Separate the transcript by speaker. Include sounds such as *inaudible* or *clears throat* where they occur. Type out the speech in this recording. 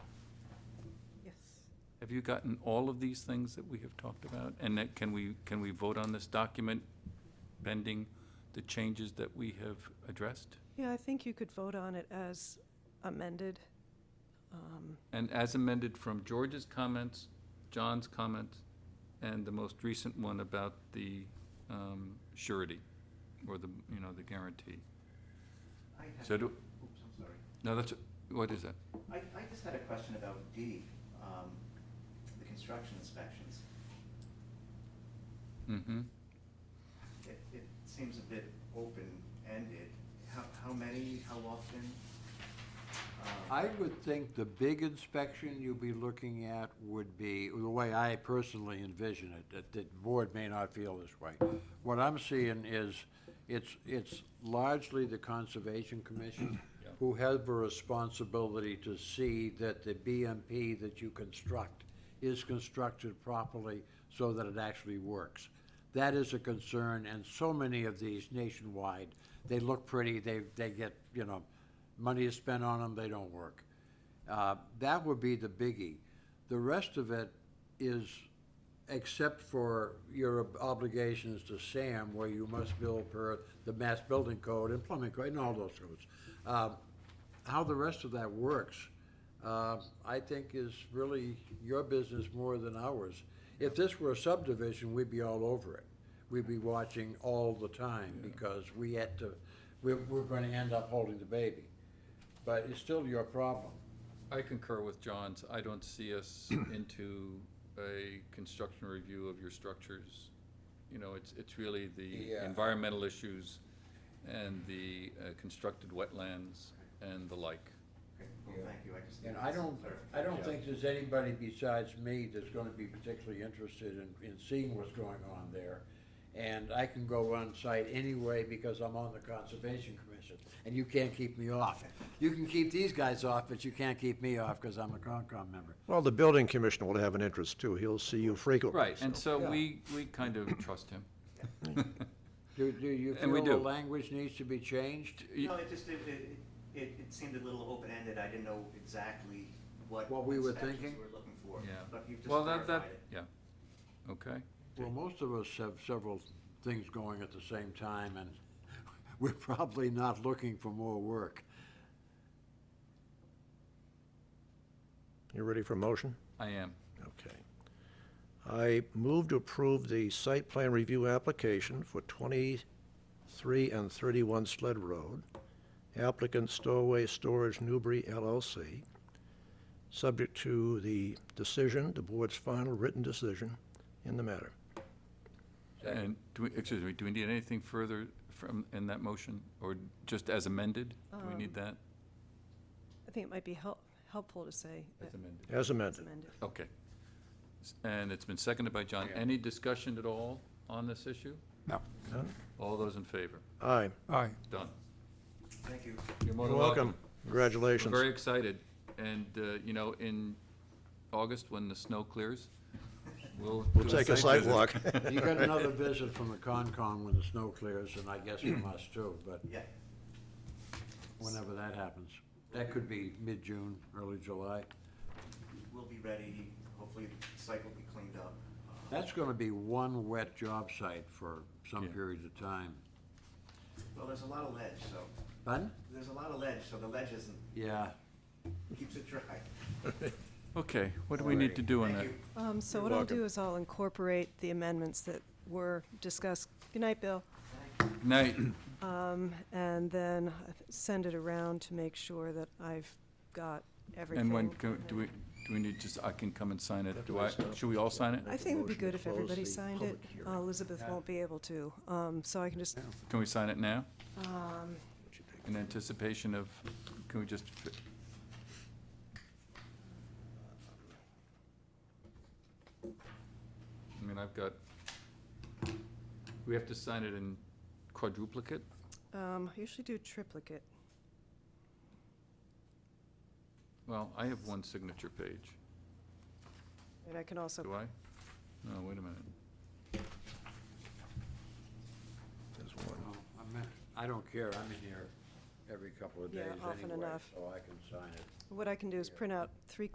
Speaker 1: Have you gotten all of these things that we have talked about? And that, can we, can we vote on this document pending the changes that we have addressed?
Speaker 2: Yeah, I think you could vote on it as amended. Um,
Speaker 1: And as amended from George's comments, John's comments, and the most recent one about the um, surety, or the, you know, the guarantee.
Speaker 3: I had-
Speaker 1: So do-
Speaker 3: Oops, I'm sorry.
Speaker 1: No, that's, what is that?
Speaker 3: I, I just had a question about D, um, the construction inspections.
Speaker 1: Mm-hmm.
Speaker 3: It, it seems a bit open-ended. How, how many, how often? Um,
Speaker 4: I would think the big inspection you'd be looking at would be, the way I personally envision it, that the board may not feel this way. What I'm seeing is, it's, it's largely the Conservation Commission
Speaker 1: Yeah.
Speaker 4: who have a responsibility to see that the BMP that you construct is constructed properly so that it actually works. That is a concern, and so many of these nationwide, they look pretty, they, they get, you know, money is spent on them, they don't work. Uh, That would be the biggie. The rest of it is, except for your obligations to SAM, where you must build per the Mass Building Code and Plumbing Code and all those codes. Uh, How the rest of that works, uh, I think is really your business more than ours. If this were a subdivision, we'd be all over it. We'd be watching all the time because we had to, we're, we're going to end up holding the baby. But it's still your problem.
Speaker 1: I concur with John's. I don't see *clears throat* us into a construction review of your structures. You know, it's, it's really the
Speaker 4: Yeah.
Speaker 1: environmental issues and the uh, constructed wetlands and the like.
Speaker 3: okay, Well, thank you, I just.
Speaker 4: And
Speaker 3: needed
Speaker 4: I
Speaker 3: some
Speaker 4: don't, I
Speaker 3: clarification.
Speaker 4: don't think there's anybody besides me that's gonna be particularly interested in, in seeing what's going on there. And I can go on site anyway because I'm on the Conservation Commission, and you can't keep me off. You can keep these guys off, but you can't keep me off because I'm a Concom member.
Speaker 5: Well, the building commissioner will have an interest too. He'll see you frequently.
Speaker 1: Right, and
Speaker 5: so-
Speaker 1: so
Speaker 4: Yeah.
Speaker 1: we, we kind of trust *clears throat* him.
Speaker 4: Do, do you
Speaker 1: And we
Speaker 4: feel the
Speaker 1: do.
Speaker 4: language needs to be changed?
Speaker 3: No, it just, it, it, it it seemed a little open-ended. I didn't know exactly what.
Speaker 4: What we were
Speaker 3: inspections
Speaker 4: thinking?
Speaker 3: we were looking for.
Speaker 1: Yeah.
Speaker 3: But you've just
Speaker 1: Well, that,
Speaker 3: clarified
Speaker 1: that,
Speaker 3: it.
Speaker 1: yeah, okay.
Speaker 4: Well, most of us have several things going at the same time, and *laughs* we're probably not looking for more work.
Speaker 5: You ready for motion?
Speaker 1: I am.
Speaker 5: Okay. I move to approve the site plan review application for 23 and 31 Sled Road. Applicant Stowaway Storage Newbury LLC. Subject to the decision, the board's final written decision in the matter.
Speaker 1: And, do we, excuse me, do we need anything further from, in that motion, or just as amended? Do we need that?
Speaker 2: I think it might be help, helpful to say
Speaker 1: As
Speaker 2: that
Speaker 1: amended.
Speaker 5: As
Speaker 2: it's
Speaker 5: amended.
Speaker 2: amended.
Speaker 1: Okay. S- And it's been seconded by John. Any discussion at all on this issue?
Speaker 6: No.
Speaker 5: Done?
Speaker 1: All those in favor?
Speaker 5: Aye.
Speaker 6: Aye.
Speaker 1: Done.
Speaker 3: Thank you.
Speaker 1: You're more
Speaker 5: You're
Speaker 1: than
Speaker 5: welcome.
Speaker 1: We're
Speaker 5: Congratulations.
Speaker 1: very excited, and, uh, you know, in August, when the snow clears, we'll.
Speaker 5: We'll
Speaker 1: do
Speaker 5: take a site
Speaker 1: visit.
Speaker 5: walk.
Speaker 1: *laughs*
Speaker 4: You got another visit from the Concom when the snow clears, and I guess from us too, but
Speaker 3: Yeah.
Speaker 4: whenever that happens. That could be mid-June, early July.
Speaker 3: We'll be ready. Hopefully the site will be cleaned up. Uh,
Speaker 4: That's gonna be one wet job site for some
Speaker 1: Yeah.
Speaker 4: period of time.
Speaker 3: Well, there's a lot of ledge, so,
Speaker 4: Pardon?
Speaker 3: there's a lot of ledge, so the ledge isn't,
Speaker 4: Yeah.
Speaker 3: keeps it dry.
Speaker 1: Okay, what do we need to do on
Speaker 3: Thank
Speaker 1: that?
Speaker 3: you.
Speaker 2: Um, So what I'll do is I'll incorporate the amendments that were discussed. Good night, Bill. Um,
Speaker 1: Night,
Speaker 2: And then I th- send it around to make sure that I've got everything.
Speaker 1: and when, co- do we, do we need, just, I can come and sign it, do I, should we all sign it?
Speaker 2: I think it would be
Speaker 5: Motion to
Speaker 2: good if
Speaker 5: close
Speaker 2: everybody
Speaker 5: the
Speaker 2: signed it.
Speaker 5: public
Speaker 2: Uh,
Speaker 5: hearing.
Speaker 2: Elizabeth won't be able to, um, so I can just, um,
Speaker 1: Can we sign it now? In anticipation of, can we just, fi- I mean, I've got, we have to sign it in quadruplicate?
Speaker 2: um, I usually do triplicate.
Speaker 1: Well, I have one signature page.
Speaker 2: And I can also
Speaker 1: Do I? No, wait a minute.
Speaker 5: There's one.
Speaker 4: Well, I'm in- I don't care, I'm in here every couple of
Speaker 2: Yeah,
Speaker 4: days
Speaker 2: often
Speaker 4: anyway,
Speaker 2: enough.
Speaker 4: so I can sign it.
Speaker 2: What I can do is print out three